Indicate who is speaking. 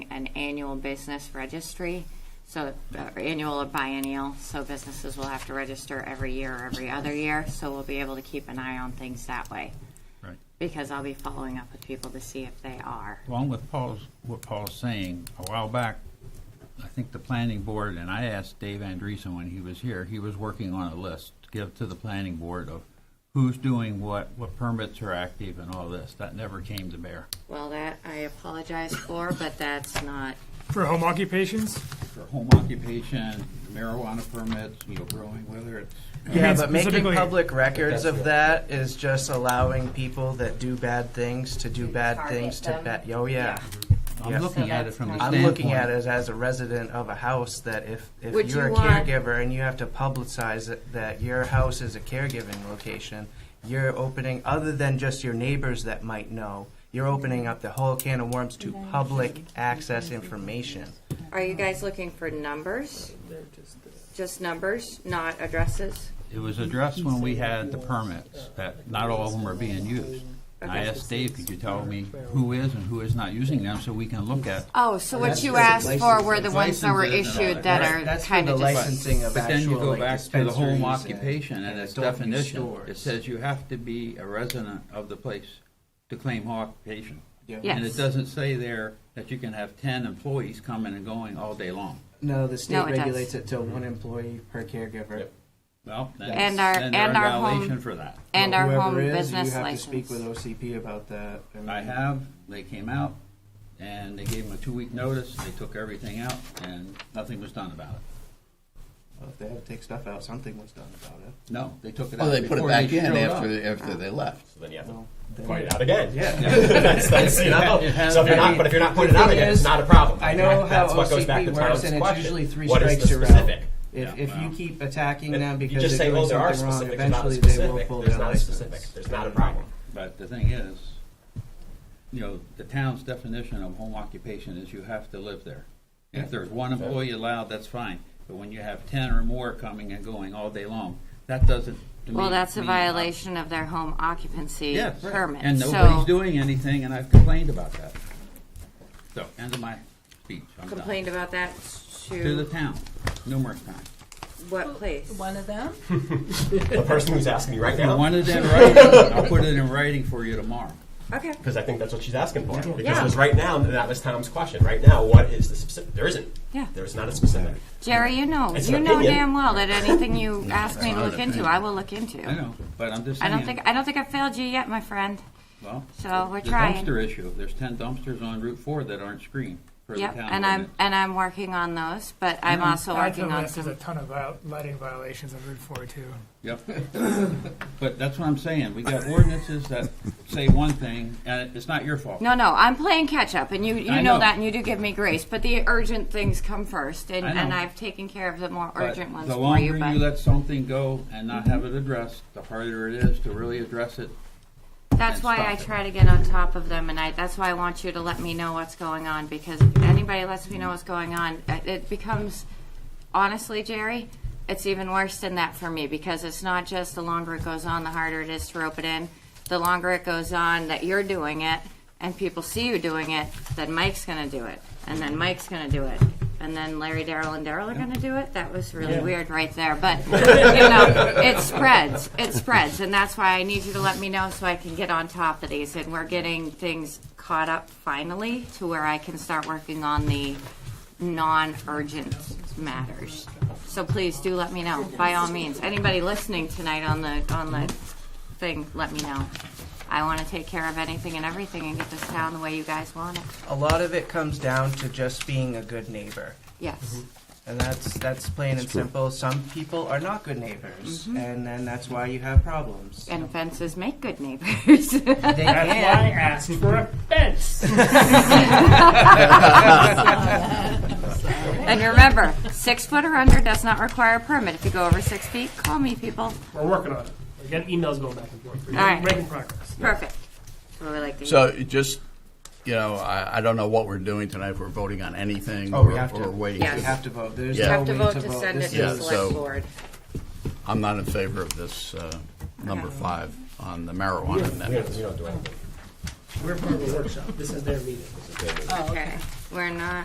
Speaker 1: an annual business registry, so, uh, annual or biennial, so businesses will have to register every year or every other year, so we'll be able to keep an eye on things that way,
Speaker 2: Right.
Speaker 1: because I'll be following up with people to see if they are.
Speaker 2: Along with Paul's, what Paul's saying, a while back, I think the planning board, and I asked Dave Andreessen when he was here, he was working on a list to give to the planning board of who's doing what, what permits are active and all this. That never came to bear.
Speaker 1: Well, that I apologize for, but that's not,
Speaker 3: For home occupations?
Speaker 2: For home occupation, marijuana permits, you know, growing, whether it's.
Speaker 4: Yeah,
Speaker 3: mean
Speaker 4: but making
Speaker 3: specifically-
Speaker 4: public records
Speaker 2: That's
Speaker 4: of that is just allowing people that do bad things to do bad
Speaker 1: target
Speaker 4: things to
Speaker 1: them.
Speaker 4: bad. Oh yeah. Yeah.
Speaker 2: I'm looking at it from the standpoint.
Speaker 4: I'm looking at it as a resident of a house that if,
Speaker 1: Would
Speaker 4: if you're
Speaker 1: you
Speaker 4: a
Speaker 1: want-
Speaker 4: caregiver and you have to publicize it, that your house is a caregiving location, you're opening, other than just your neighbors that might know, you're opening up the whole can of worms to public access information.
Speaker 1: are you guys looking for numbers? Just numbers, not addresses?
Speaker 2: It was addressed when we had the permits, that not all of them are being used. And I
Speaker 1: Okay.
Speaker 2: asked Dave, could you tell me who is and who is not using them, so we can look at
Speaker 1: Oh, so what you asked for were the ones that were
Speaker 2: Licenses and all
Speaker 1: issued
Speaker 2: that.
Speaker 1: that are
Speaker 4: That's for
Speaker 1: kind
Speaker 4: the
Speaker 1: of just,
Speaker 4: licensing of
Speaker 2: But then you
Speaker 4: actual,
Speaker 2: go
Speaker 4: like,
Speaker 2: back to the home
Speaker 4: dispensaries and-
Speaker 2: occupation and its
Speaker 4: adult use
Speaker 2: definition. It
Speaker 4: stores.
Speaker 2: says you have to be a resident of the place to claim home occupation. And it
Speaker 1: yes.
Speaker 2: doesn't say there that you can have ten employees coming and going all day long.
Speaker 4: No, the state
Speaker 1: No, it does.
Speaker 4: regulates it to one employee per caregiver.
Speaker 2: Well, then,
Speaker 1: And our-
Speaker 2: then they're
Speaker 1: and
Speaker 2: a
Speaker 1: our home-
Speaker 2: violation for that.
Speaker 1: And our
Speaker 4: Whoever
Speaker 1: home
Speaker 4: is,
Speaker 1: business
Speaker 4: You have to speak
Speaker 1: license.
Speaker 4: with OCP about that. mean-
Speaker 2: I have, they came out and they gave them a two-week notice, they took everything out and nothing was done about it.
Speaker 4: Well, if they had to take stuff out, something was done about it.
Speaker 2: No, they took it out.
Speaker 5: Well, they put it
Speaker 2: before
Speaker 5: back in
Speaker 2: showed
Speaker 5: after
Speaker 2: up.
Speaker 5: they, after they left.
Speaker 6: So then you have to
Speaker 4: Well, then-
Speaker 6: point it out again.
Speaker 4: Yeah.
Speaker 6: That's- that's, you know,
Speaker 2: It has-
Speaker 6: so if you're
Speaker 4: I
Speaker 6: not,
Speaker 4: mean,
Speaker 6: but if you're not
Speaker 4: the
Speaker 6: pointing it out
Speaker 4: thing
Speaker 6: again, it's
Speaker 4: is,
Speaker 6: not a problem.
Speaker 4: I know how
Speaker 6: that's what goes back to
Speaker 4: OCP works,
Speaker 6: Tom's
Speaker 4: and it's
Speaker 6: question.
Speaker 4: usually three
Speaker 6: What is
Speaker 4: strikes
Speaker 6: the
Speaker 4: you're out.
Speaker 6: specific?
Speaker 4: If,
Speaker 2: Yeah,
Speaker 4: if you
Speaker 2: wow.
Speaker 4: keep attacking
Speaker 6: And
Speaker 4: them
Speaker 6: you
Speaker 4: because
Speaker 6: just
Speaker 4: they're
Speaker 6: say,
Speaker 4: doing
Speaker 6: oh, there are
Speaker 4: something wrong,
Speaker 6: specific, there's not a
Speaker 4: eventually they will
Speaker 6: specific,
Speaker 4: pull
Speaker 6: there's
Speaker 4: their
Speaker 6: not a specific,
Speaker 4: license.
Speaker 6: there's not a problem.
Speaker 2: But the thing is, you know, the town's definition of home occupation is you have to live there. If there's one employee allowed, that's fine, but when you have ten or more coming and going all day long, that doesn't, to me.
Speaker 1: Well, that's a
Speaker 2: mean-
Speaker 1: violation of their home occupancy
Speaker 2: Yes, right.
Speaker 1: permit.
Speaker 2: and
Speaker 1: So-
Speaker 2: nobody's doing anything, and I've complained about that. So, end of my speech, I'm done.
Speaker 1: Complained about that
Speaker 2: To the
Speaker 1: to
Speaker 2: town, numerous times.
Speaker 1: what place?
Speaker 7: One of them?
Speaker 6: The person who's asking you right
Speaker 2: I
Speaker 6: now,
Speaker 2: wanted that in writing, I'll put it in writing for you tomorrow.
Speaker 1: Okay,
Speaker 6: because I think that's what she's asking for. Because
Speaker 1: Yeah.
Speaker 6: it was right now, and that was Tom's question. Right now, what is the specific? There isn't.
Speaker 1: Yeah.
Speaker 6: There's not a specific.
Speaker 1: Jerry, you know,
Speaker 6: It's
Speaker 1: you
Speaker 6: an
Speaker 1: know
Speaker 6: opinion.
Speaker 1: damn well that anything you ask me to
Speaker 2: not
Speaker 1: look
Speaker 2: an
Speaker 1: into,
Speaker 2: opinion.
Speaker 1: I will look into.
Speaker 2: I know, but I'm just
Speaker 1: I
Speaker 2: saying.
Speaker 1: don't think, I don't think I failed you yet, my friend.
Speaker 2: Well,
Speaker 1: So we're
Speaker 2: the
Speaker 1: trying.
Speaker 2: dumpster issue. There's ten dumpsters on Route Four that aren't screened for the
Speaker 1: Yep,
Speaker 2: town.
Speaker 1: and I'm, and I'm working on those, but I'm also
Speaker 3: Add to the
Speaker 1: working on
Speaker 3: list is a
Speaker 1: some,
Speaker 3: ton of viol- lighting violations on Route 4 too.
Speaker 2: ordinance. Yep. But that's what I'm saying. We got ordinances that say one thing, and it's not your fault.
Speaker 1: no, no, I'm playing catch-up, and you, you
Speaker 2: I
Speaker 1: know
Speaker 2: know.
Speaker 1: that, and you do give me grace, but the urgent things come first, and,
Speaker 2: I know.
Speaker 1: and I've taken care of the more
Speaker 2: But
Speaker 1: urgent ones
Speaker 2: The
Speaker 1: for you,
Speaker 2: longer you
Speaker 1: but
Speaker 2: let something go and not have it addressed, the harder it is to really address it.
Speaker 1: that's
Speaker 2: and
Speaker 1: why I
Speaker 2: stop it.
Speaker 1: try to get on top of them, and I, that's why I want you to let me know what's going on, because if anybody lets me know what's going on, it- it becomes, honestly, Jerry, it's even worse than that for me, because it's not just the longer it goes on, the harder it is to rope it in. The longer it goes on that you're doing it, and people see you doing it, then Mike's gonna do it, and then Mike's gonna do it, and then Larry, Daryl, and Daryl are gonna do it. That was really weird right there, but you know, it spreads, it spreads, and that's why I need you to let me know so I can get on top of these. And we're getting things caught up finally to where I can start working on the non-urgent matters. So please do let me know, by all means. Anybody listening tonight on the, on the thing, let me know. I want to take care of anything and everything and get this town the way you guys want it.
Speaker 4: A lot of it comes down to just being a good neighbor.
Speaker 1: Yes.
Speaker 4: And that's that's plain and simple. Some people are not good neighbors, and then that's why you have problems.
Speaker 1: Mm-hmm. And fences make good neighbors.
Speaker 4: They can.
Speaker 3: asked for a fence.
Speaker 1: And remember, six foot or under does not require a permit. If you go over six feet, call me, people.
Speaker 8: We're working on it. We got emails going back and forth. We're
Speaker 1: Alright.
Speaker 8: making progress.
Speaker 1: Perfect. That's what we like to hear.
Speaker 5: So it just, you know, I, I don't know what we're doing tonight, if we're voting on anything
Speaker 4: Oh, we
Speaker 5: or,
Speaker 4: have to.
Speaker 5: or waiting.
Speaker 1: Yes.
Speaker 4: You have to vote. There's
Speaker 5: Yeah.
Speaker 4: no
Speaker 1: Have to
Speaker 4: way
Speaker 1: vote
Speaker 4: Oh, to
Speaker 1: to
Speaker 4: vote.
Speaker 1: send it
Speaker 4: This
Speaker 1: to the
Speaker 5: Yeah,
Speaker 4: is-
Speaker 1: select
Speaker 5: so-
Speaker 1: board.
Speaker 5: I'm not in favor of this, uh, number five on the marijuana
Speaker 6: We don't,
Speaker 5: amendment.
Speaker 6: we don't do anything.
Speaker 8: We're part of a workshop. This is their meeting.
Speaker 1: Oh, Okay. We're not